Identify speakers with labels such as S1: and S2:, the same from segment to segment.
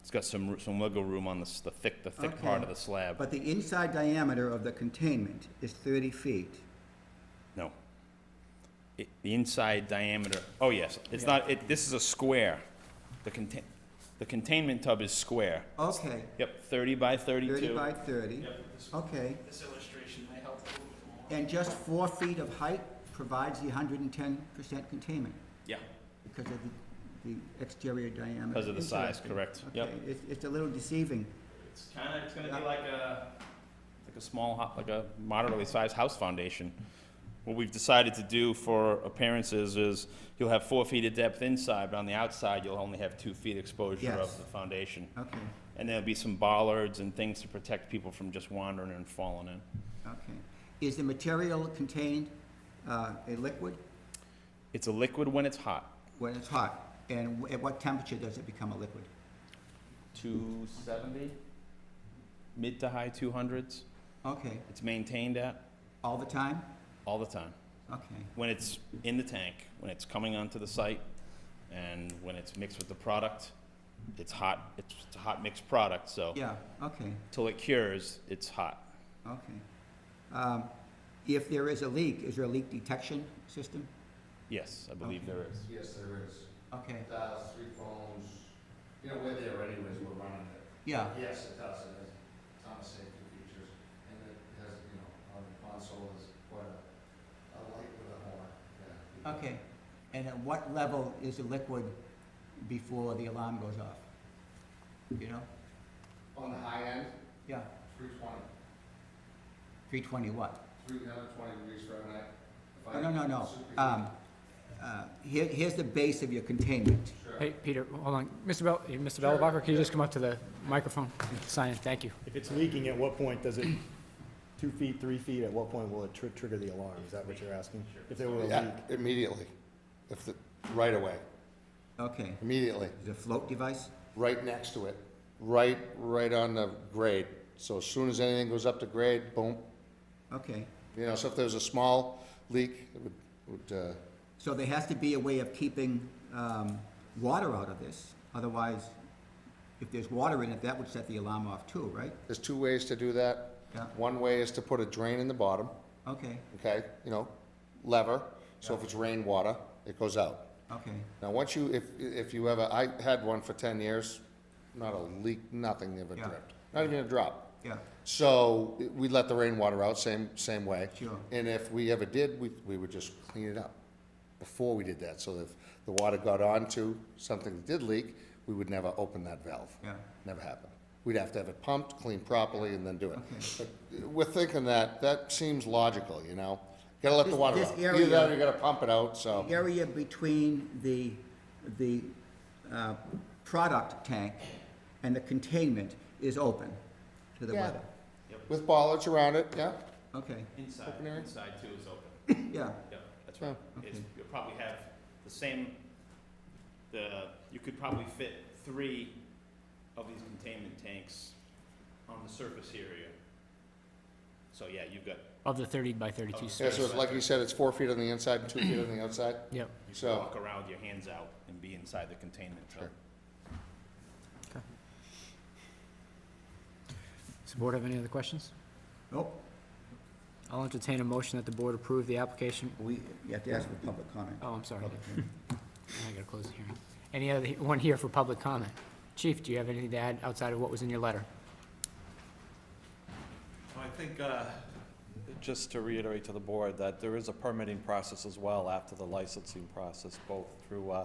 S1: It's got some, roo- some wiggle room on the, s- the thick, the thick part of
S2: Okay.
S1: the slab.
S2: But the inside diameter of the containment is 30 feet.
S1: No. It- The inside diameter, oh yes, it's not, it, this is a square. The contain, the containment tub is square.
S2: Okay,
S1: Yep, thirty by
S2: 30
S1: thirty-two.
S2: by 30. Okay,
S3: This illustration may help.
S2: and just four feet of height provides the 110% containment
S1: Yeah,
S2: because of the, the exterior diameter.
S1: because of the size,
S2: Interesting.
S1: correct, yep.
S2: Okay, it's, it's a little deceiving.
S1: It's kinda, it's gonna be like a, like a small, ho- like a moderately sized house foundation. What we've decided to do for appearances is you'll have four feet of depth inside, but on the outside, you'll only have two feet exposure of
S2: Yes.
S1: the foundation.
S2: Okay,
S1: And there'll be some bollards and things to protect people from just wandering and falling in.
S2: okay. Is the material contained, uh, a liquid
S1: It's a liquid when it's hot.
S2: when it's hot? And w- at what temperature does it become a liquid?
S1: 270? Mid to high 200s.
S2: Okay,
S1: It's maintained at
S2: all the time?
S1: all the time.
S2: Okay,
S1: When it's in the tank, when it's coming onto the site, and when it's mixed with the product, it's hot. It's it's a hot mixed product, so
S2: yeah, okay.
S1: till it cures, it's hot.
S2: Okay. Um, If there is a leak, is there a leak detection system?
S1: Yes, I believe
S2: Okay.
S1: there is.
S4: Yes, there is.
S2: Okay,
S4: It does, three phones, you know, we're there anyways, we're running it. Uh,
S2: yeah,
S4: Yes, it does, it has a ton of safety features, and it has, you know, on the console is quite a, a light with a horn, yeah.
S2: okay. And at what level is the liquid before the alarm goes off? You know?
S4: On the high end,
S2: Yeah,
S4: three twenty,
S2: three twenty what?
S4: three hundred twenty degrees Fahrenheit. If I-
S2: Oh, no, no, no.
S4: Superheat.
S2: Um, uh, here, here's the base of your containment.
S4: Sure.
S5: Hey, Peter, hold on. Mr. Bell, eh, Mr. Bellebacher, can you just come up to the microphone? Sign in, thank you.
S6: If it's leaking, at what point does it, two feet, three feet, at what point will it tr- trigger the alarm? Is that what you're asking? If there were a leak?
S4: Yeah, immediately, if the, right away,
S2: Okay.
S4: immediately.
S2: Is it a float device?
S4: right next to it, right, right on the grade. So as soon as anything goes up to grade, boom,
S2: Okay.
S4: you know, so if there's a small leak, it would, would, uh,
S2: So there has to be a way of keeping, um, water out of this. Otherwise, if there's water in it, that would set the alarm off too, right?
S4: there's two ways to do that.
S2: Yeah.
S4: One way is to put a drain in the bottom,
S2: Okay,
S4: okay, you know, lever, so if it's rainwater, it goes out.
S2: okay.
S4: Now, once you, if, if you ever, I had one for ten years, not a leak, nothing ever
S2: Yeah.
S4: dripped, not even a drop.
S2: Yeah,
S4: So it- we let the rainwater out, same, same way.
S2: Sure.
S4: And if we ever did, we, we would just clean it up before we did that. So that if the water got onto something that did leak, we would never open that valve.
S2: yeah,
S4: Never happened. We'd have to have it pumped, cleaned properly, and then do it.
S2: okay.
S4: But We're thinking that, that seems logical, you know? Gotta let the
S2: This-
S4: water
S2: this
S4: out.
S2: area-
S4: Either that or you gotta pump it out, so.
S2: The Area between the, the uh, product tank and the containment is open to the
S4: Yeah.
S2: weather.
S4: With bollards around it, yeah?
S2: Okay,
S1: Inside,
S4: Open area?
S1: inside too is open.
S2: yeah,
S1: Yeah, that's
S4: Yeah.
S1: right. It's,
S2: Okay.
S1: you'll probably have the same, the, you could probably fit three of these containment tanks on the surface area. So, yeah, you've got,
S5: Of the 30 by 32
S4: Yeah,
S5: space.
S4: so it's like you said, it's four feet on the inside and two feet on the outside?
S5: Yep.
S1: you can
S4: So-
S1: walk around with your hands out and be inside the containment tub.
S4: Sure.
S5: Does the board have any other questions?
S2: nope,
S5: I'll entertain a motion that the board approve the application.
S2: we, you have to ask for public comment.
S5: Oh, I'm sorry.
S2: Public hearing.
S5: I gotta close the hearing. Any other, one here for public comment? Chief, do you have anything to add outside of what was in your letter?
S7: I think, uh, just to reiterate to the board, that there is a permitting process as well after the licensing process, both through uh,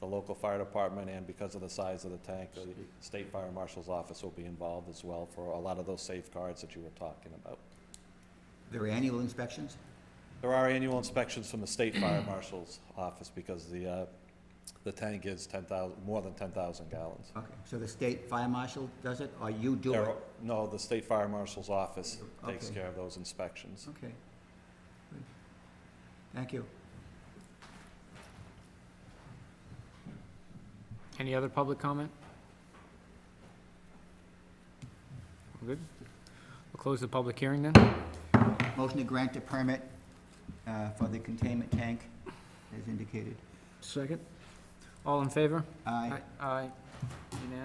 S7: the local fire department and because of the size of the tank, the state fire marshal's office will be involved as well for a lot of those safeguards that you were talking about.
S2: There are annual inspections?
S7: There are annual inspections from the state fire marshal's office because the, uh, the tank is 10,000, more than 10,000 gallons.
S2: Okay, so the state fire marshal does it, or you do
S7: There
S2: it?
S7: are- No, the state fire marshal's office takes
S2: Okay.
S7: care of those inspections.
S2: Okay. Good. Thank you.
S5: Any other public comment? We're Good. We'll close the public hearing then.
S2: Motion to grant the permit uh, for the containment tank, as indicated.
S5: Second. All in favor?
S2: Aye.
S5: Aye.